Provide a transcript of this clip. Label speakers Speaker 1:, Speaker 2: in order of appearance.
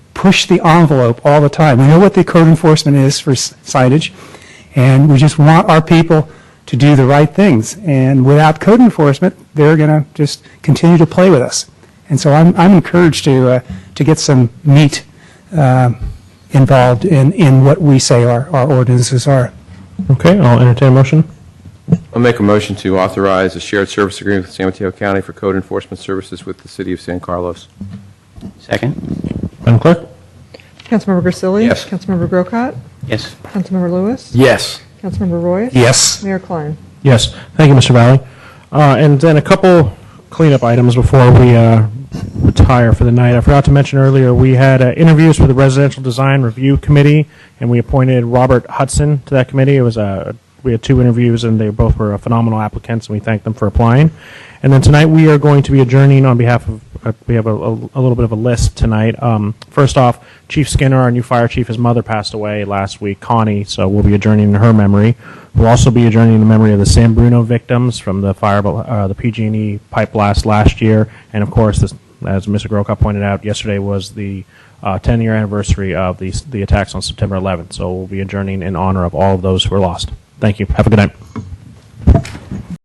Speaker 1: push the envelope all the time. We know what the code enforcement is for s- signage, and we just want our people to do the right things. And without code enforcement, they're going to just continue to play with us. And so I'm, I'm encouraged to, uh, to get some meat um, involved in, in what we say our, our ordinances are.
Speaker 2: Okay, I'll entertain a motion.
Speaker 3: I'll make a motion to authorize a shared service agreement with San Mateo County for code enforcement services with the city of San Carlos.
Speaker 4: Second?
Speaker 2: Madam Clerk?
Speaker 5: Councilmember Grisilli?
Speaker 3: Yes.
Speaker 5: Councilmember Grocott?
Speaker 4: Yes.
Speaker 5: Councilmember Lewis?
Speaker 3: Yes.
Speaker 5: Councilmember Roy?
Speaker 1: Yes.
Speaker 5: Mayor Klein?
Speaker 2: Yes, thank you, Mr. Valley. Uh, And then a couple cleanup items before we uh, retire for the night. I forgot to mention earlier, we had uh, interviews for the Residential Design Review Committee, and we appointed Robert Hudson to that committee. It was a, we had two interviews, and they both were phenomenal applicants, and we thank them for applying. And then tonight, we are going to be adjourning on behalf of, uh, we have a a- a little bit of a list tonight. Um, First off, Chief Skinner, our new fire chief, his mother passed away last week, Connie, so we'll be adjourning in her memory. We'll also be adjourning in the memory of the San Bruno victims from the fire, bel- uh, the PG&E pipe blast last year, and of course, this, as Mr. Grocott pointed out, yesterday was the uh, 10-year anniversary of the the attacks on September 11th. So we'll be adjourning in honor of all of those who were lost. Thank you. Have a good night.